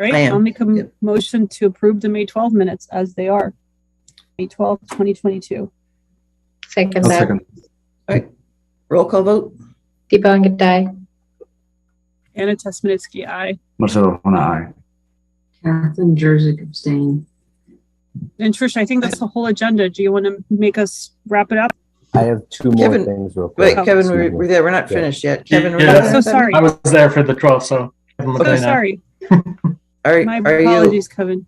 All I right, am. I'll make a m- Yep. motion to approve the May 12 minutes as they are. May 12, 2022. Second I'll that. second. Roll call vote? Deepa Vangadai. Anna Tesmanitsky, aye. Marcelo Hona, aye. Catherine Jersey abstain. And Trish, I think that's the whole agenda. Do you want to make us wrap it up? I have two more Kevin- things real Wait, quick. Kevin, Excuse we're, me. we're there. We're not finished yet. Kevin, we're Yeah. not I'm Oh, so finished? sorry. I was there for the 12th, so. Kevin So McLean, aye. Oh, sorry. Are, My are you, apologies, Kevin.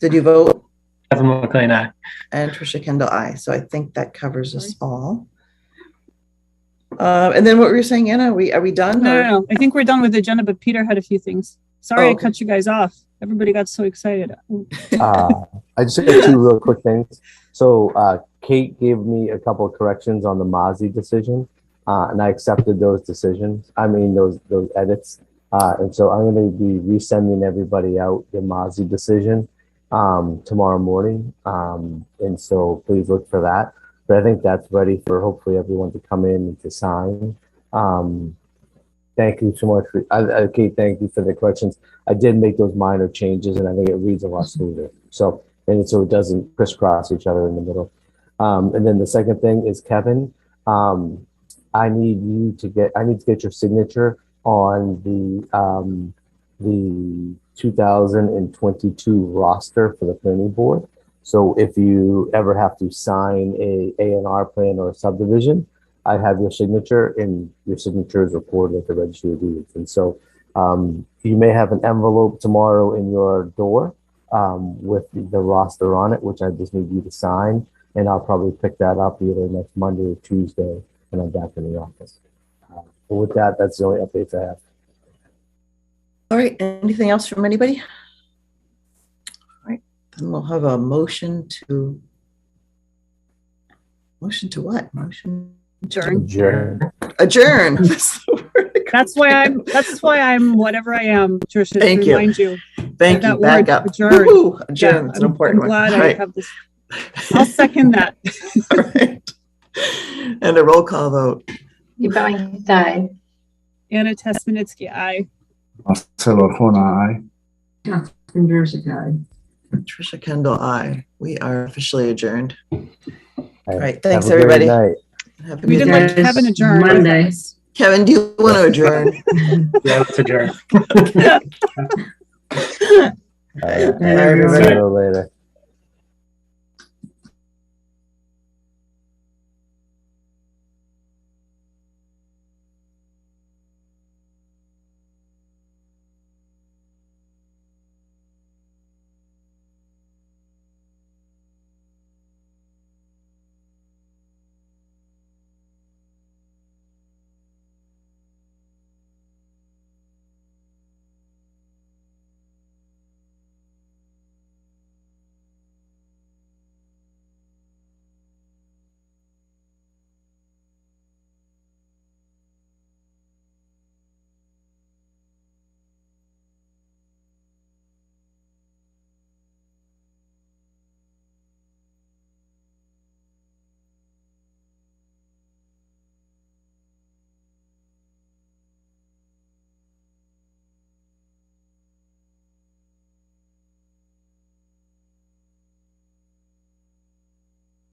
did you vote? Kevin McLean, aye. And Trisha Kendall, aye. So I think that covers us all. Uh, and then what were you saying, Anna? We, are we done? No, or- no, no. I think we're done with the agenda, but Peter had a few things. Sorry Oh, I okay. cut you guys off. Everybody got so excited. Uh, I just have two real quick things. So uh, Kate gave me a couple of corrections on the Mozzie decision, uh, and I accepted those decisions. I mean those those edits. Uh, and so I'm going to be resending everybody out the Mozzie decision um, tomorrow morning. Um, and so please look for that. But I think that's ready for hopefully everyone to come in and to sign. Um, thank you so much, for, uh, uh, Kate. Thank you for the corrections. I did make those minor changes and I think it reads a lot smoother. So, and so it doesn't crisscross each other in the middle. Um, and then the second thing is Kevin, um, I need you to get, I need to get your signature on the, um, the 2022 roster for the planning board. So if you ever have to sign a A and R plan or a subdivision, I have your signature and your signature is recorded at the registry of deeds. And so, um, you may have an envelope tomorrow in your door um, with the roster on it, which I just need you to sign. And I'll probably pick that up either next Monday or Tuesday when I'm back in the office. Uh, but with that, that's the only updates I have. All right, anything else from anybody? All right, then we'll have a motion to. Motion to what? Motion Adjourn. Adjourn. adjourn. That's the word. That's why I'm, that's why I'm whatever I am, Trish, to Thank you. remind you. Thank you, that back word, up. adjourn. Woo-hoo, Yeah, Adjourn, it's I'm- I'm an important one. glad All I right. have this. I'll second that. All right. And a roll call vote. Deepa Vangadai. Anna Tesmanitsky, aye. Marcelo Hona, aye. Catherine Jersey aye. Trisha Kendall, aye. We are officially adjourned. All right, thanks, Have a great everybody. night. Have a We good didn't night. let Yes, Kevin adjourn. Monday. Kevin, do you want to adjourn? Yeah, let's adjourn. All right, Bye, everyone. see you later.